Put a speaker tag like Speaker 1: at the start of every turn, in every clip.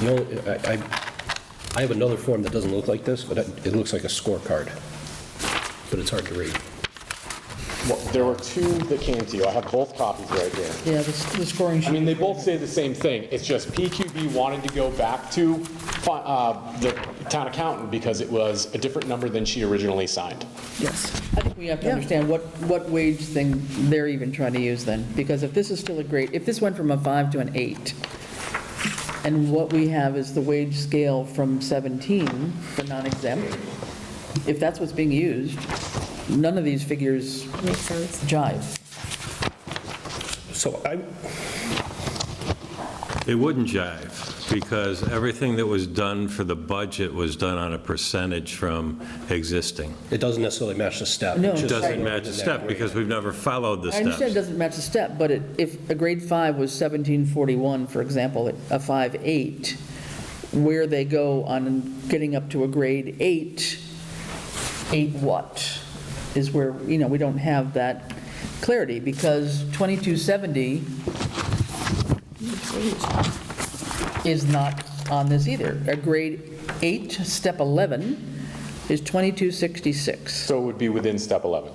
Speaker 1: The only, I, I- I have another form that doesn't look like this, but it it looks like a scorecard, but it's hard to read.
Speaker 2: Well, there were two that came to you. I have both copies right here.
Speaker 3: Yeah, the s- the scoring sheet.
Speaker 2: I mean, they both say the same thing. It's just PQB wanted to go back to fi- uh, the town accountant because it was a different number than she originally signed.
Speaker 3: Yes. I think we have to understand what, what wage thing they're even trying to use then, because if this is still a grade, if this went from a five to an eight, and what we have is the wage scale from 17 for non-exempt, if that's what's being used, none of these figures
Speaker 4: Makes sense.
Speaker 3: jive.
Speaker 1: So I,
Speaker 5: It wouldn't jive, because everything that was done for the budget was done on a percentage from existing.
Speaker 1: it doesn't necessarily match the step.
Speaker 3: No,
Speaker 1: It's
Speaker 5: It
Speaker 1: just-
Speaker 5: doesn't match the step, because we've never followed the
Speaker 3: I understand it
Speaker 5: steps.
Speaker 3: doesn't match the step, but it- if a grade five was 1741, for example, at a five eight, where they go on getting up to a grade eight, eight what, is where, you know, we don't have that clarity, because 2270 is not on this either. A grade eight, step 11, is 2266.
Speaker 2: So it would be within step 11.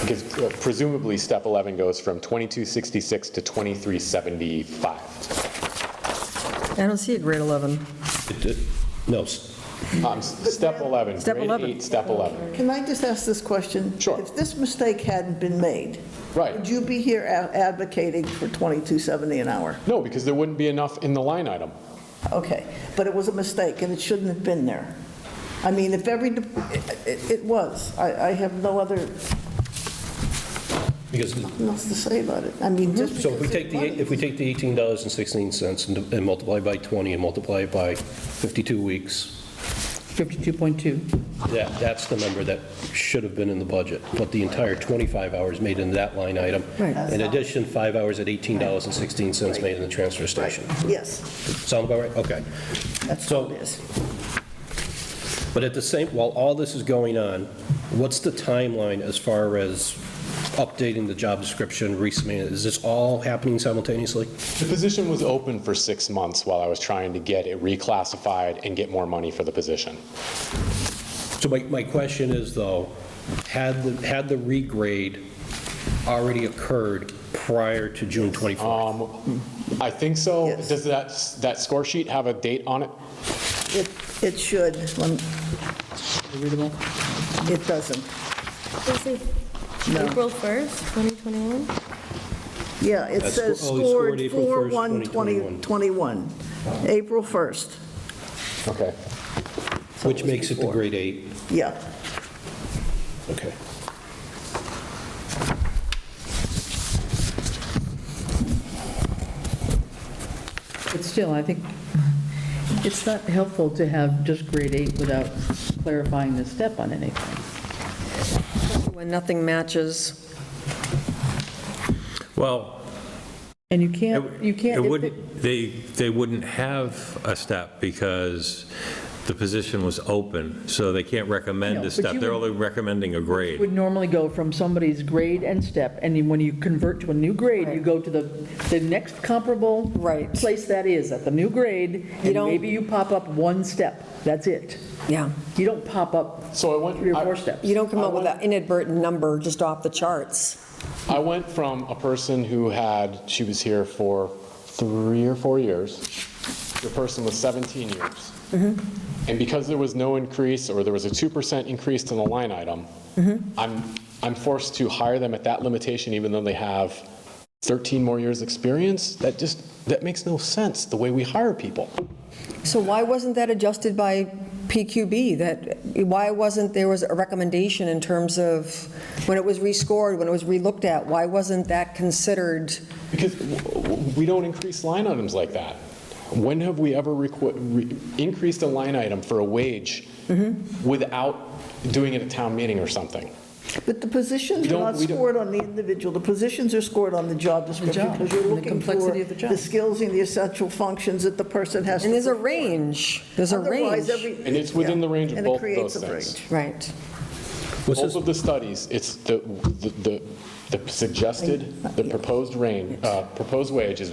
Speaker 2: Because uh, presumably, step 11 goes from 2266 to 2375.
Speaker 4: I don't see a grade 11.
Speaker 1: It- it- No, s-
Speaker 2: Um, s- Step 11,
Speaker 4: Step
Speaker 2: grade
Speaker 4: 11.
Speaker 2: eight, step 11.
Speaker 6: Can I just ask this question?
Speaker 2: Sure.
Speaker 6: If this mistake hadn't been made, would
Speaker 2: Right.
Speaker 6: you be here a- advocating for 2270 an hour?
Speaker 2: No, because there wouldn't be enough in the line item.
Speaker 6: Okay, but it was a mistake, and it shouldn't have been there. I mean, if every, de- it- it it was. I I have no other,
Speaker 1: because,
Speaker 6: nothing else to say about it. I mean, just
Speaker 1: Mm-hmm. so if we
Speaker 6: because
Speaker 1: take
Speaker 6: it
Speaker 1: the, eight- if we take the $18.16 and and multiply by 20 and multiply it by 52 weeks,
Speaker 3: 52.2.
Speaker 1: that, that's the number that should have been in the budget, but the entire 25 hours made in that line item. In addition, five hours at $18.16 made in the transfer station.
Speaker 6: wasn't- Yes,
Speaker 1: Sound about right? Okay.
Speaker 6: that's
Speaker 1: So-
Speaker 6: what it is.
Speaker 1: But at the same, while all this is going on, what's the timeline as far as updating the job description, resubmitting? it? Is this all happening simultaneously?
Speaker 2: The position was open for six months while I was trying to get it reclassified and get more money for the position.
Speaker 1: So my, my question is though, had the, had the regrade already occurred prior to June 24th?
Speaker 2: Um, I think so.
Speaker 6: Yes.
Speaker 2: Does that, that score sheet have a date on it?
Speaker 6: It it should, when-
Speaker 3: Readable?
Speaker 6: it doesn't. No.
Speaker 4: April 1st, 2021?
Speaker 6: Yeah, it
Speaker 1: That's-
Speaker 6: says
Speaker 1: oh, he scored
Speaker 6: scored
Speaker 1: April 1st, 2021.
Speaker 6: 4/1/2021, April 1st,
Speaker 2: Okay.
Speaker 1: Which makes it the grade eight?
Speaker 6: yeah.
Speaker 1: Okay.
Speaker 3: But still, I think it's not helpful to have just grade eight without clarifying the step on anything.
Speaker 4: When nothing matches.
Speaker 5: Well,
Speaker 3: And you
Speaker 5: it
Speaker 3: can't, you can't,
Speaker 5: it
Speaker 3: if it-
Speaker 5: wouldn't, they, they wouldn't have a step, because the position was open, so they can't
Speaker 3: No,
Speaker 5: recommend a
Speaker 3: but
Speaker 5: step.
Speaker 3: you
Speaker 5: They're
Speaker 3: would-
Speaker 5: only recommending a
Speaker 3: it
Speaker 5: grade.
Speaker 3: would normally go from somebody's grade and step, and then when you convert to a new grade, you go to the, the next comparable
Speaker 4: Right.
Speaker 3: place that is at the new grade, and
Speaker 4: don't-
Speaker 3: maybe you pop up one step, that's it.
Speaker 4: Yeah.
Speaker 3: You don't pop up
Speaker 2: So I went.
Speaker 3: three or
Speaker 2: I-
Speaker 3: four steps.
Speaker 4: You don't come up with an inadvertent number just off the charts.
Speaker 2: I went from a person who had, she was here for three or four years, to a person with 17 years. And because there was no increase, or there was a 2% increase to the line item, I'm, I'm forced to hire them at that limitation even though they have 13 more years' experience? That just, that makes no sense, the way we hire people.
Speaker 4: So why wasn't that adjusted by PQB? That, why wasn't, there was a recommendation in terms of when it was rescored, when it was relooked at? Why wasn't that considered?
Speaker 2: Because w- w- we don't increase line items like that. When have we ever requ- re- increased a line item for a wage without doing it at town meeting or something?
Speaker 6: But the positions
Speaker 2: We
Speaker 6: are
Speaker 2: don't-
Speaker 6: not
Speaker 2: we don't-
Speaker 6: scored on the individual, the positions are scored on the job description,
Speaker 3: job,
Speaker 6: because you're
Speaker 3: and the
Speaker 6: looking for
Speaker 3: complexity of the job.
Speaker 6: the skills and the essential functions that the person has to.
Speaker 4: And there's a
Speaker 6: perform.
Speaker 4: range. There's a range.
Speaker 6: Otherwise, every.
Speaker 2: And it's within
Speaker 6: yeah,
Speaker 2: the range of
Speaker 6: and it
Speaker 2: both of
Speaker 6: creates
Speaker 2: those
Speaker 6: a
Speaker 2: things.
Speaker 6: range.
Speaker 4: Right.
Speaker 1: Was
Speaker 2: Both
Speaker 1: this,
Speaker 2: of the studies, it's the, the- the the suggested, the proposed range, uh, proposed wage is